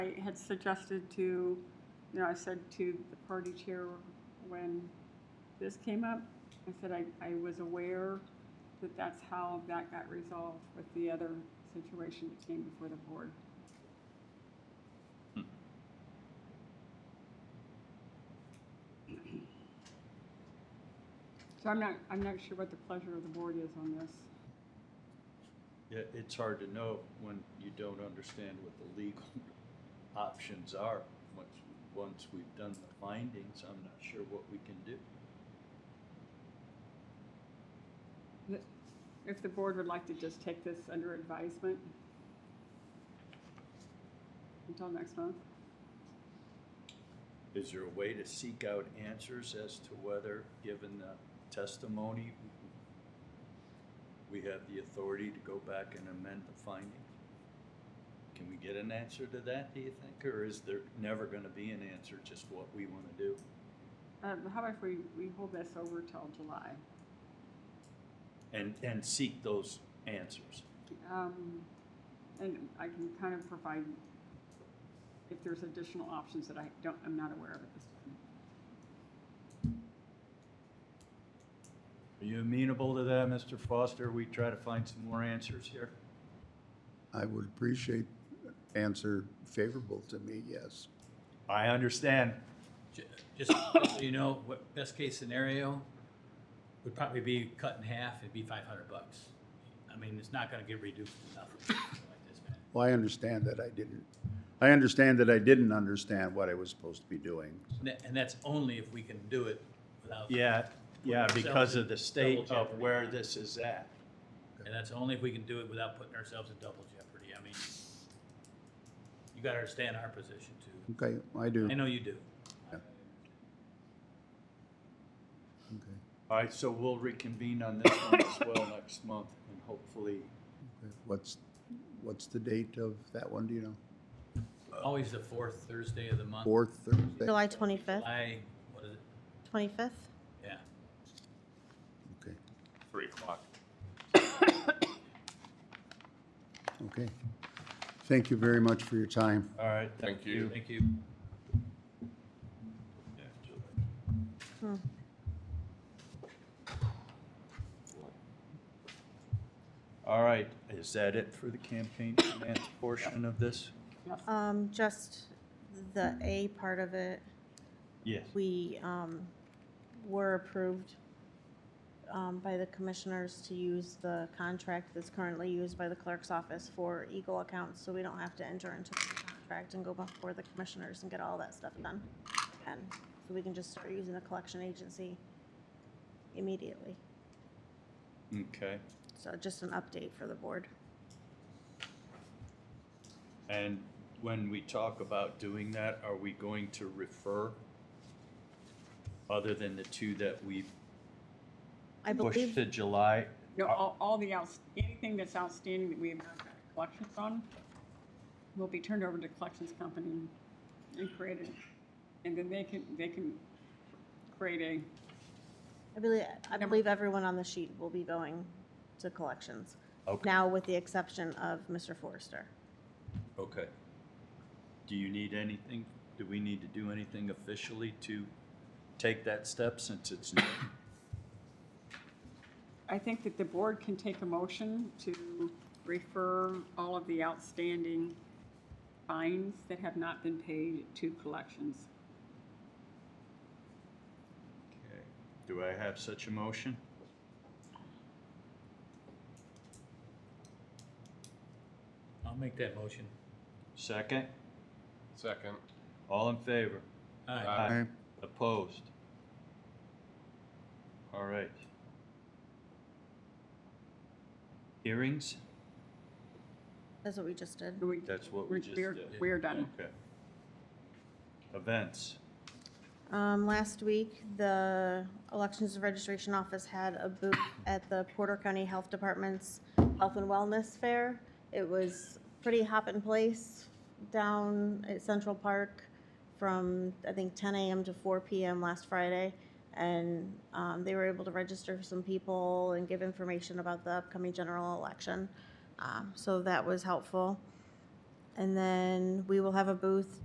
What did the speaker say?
I had suggested to, you know, I said to the party chair when this came up, I said I, I was aware that that's how that got resolved with the other situation that came before the board. So I'm not, I'm not sure what the pleasure of the board is on this. Yeah, it's hard to know when you don't understand what the legal options are. Once, once we've done the findings, I'm not sure what we can do. If the board would like to just take this under advisement until next month, Is there a way to seek out answers as to whether, given the testimony, we have the authority to go back and amend the findings? Can we get an answer to that, do you think, or is there never gonna be an answer, just what we wanna do? um, how about if we, we hold this over till July? And, and seek those answers. Um, and I can kind of provide if there's additional options that I don't, I'm not aware of at this time. Are you amenable to that, Mr. Foster? We try to find some more answers here. I would appreciate answer favorable to me, yes. I understand. Ju- Just so you know, what best case scenario would probably be cut in half, it'd be five hundred bucks. I mean, it's not gonna get reduced to nothing like this, man. Well, I understand that I didn't, I understand that I didn't understand what I was supposed to be doing. And that- And that's only if we can do it without. Yeah, yeah, because of the state Double of jeopardy. where this is at. And that's only if we can do it without putting ourselves in double jeopardy. I mean, you gotta understand our position too. Okay, I do. I know you do. Okay. All right, so we'll reconvene on this one as well next month and hopefully, Okay. What's, what's the date of that one, do you know? Always the fourth Thursday of the month. Fourth Thursday? July 25th, July, what is it? 25th? Yeah. Okay, Three o'clock. okay. Thank you very much for your time. all right, thank Thank you. you. Thank you. Yeah, July. All right, is that it for the campaign finance portion of this? Um, just the A part of it, Yes. we, um, were approved, um, by the commissioners to use the contract that's currently used by the clerk's office for Eagle accounts, so we don't have to enter into the contract and go before the commissioners and get all that stuff done. And so we can just start using the collection agency immediately. Okay, So just an update for the board. and when we talk about doing that, are we going to refer? Other than the two that we I pushed believe, to July? You know, Are- all, all the outs, anything that's outstanding that we have not got collections on will be turned over to collections company and created, and then they can, they can create a I believe, I believe everyone on the sheet will be going to collections. Okay. Now, with the exception of Mr. Forrester. Okay. Do you need anything, do we need to do anything officially to take that step since it's new? I think that the board can take a motion to refer all of the outstanding fines that have not been paid to collections. Okay. Do I have such a motion? I'll make that motion. Second? Second. All in favor? Aye. Aye. Opposed? All right. Hearings? That's what we just did. We- That's what we just we're- did. We're done. Okay. Events? Um, last week, the Elections and Registration Office had a booth at the Porter County Health Department's Health and Wellness Fair. It was pretty hopping place down at Central Park from, I think, ten AM to four PM last Friday. And, um, they were able to register some people and give information about the upcoming general election. Um, so that was helpful. And then we will have a booth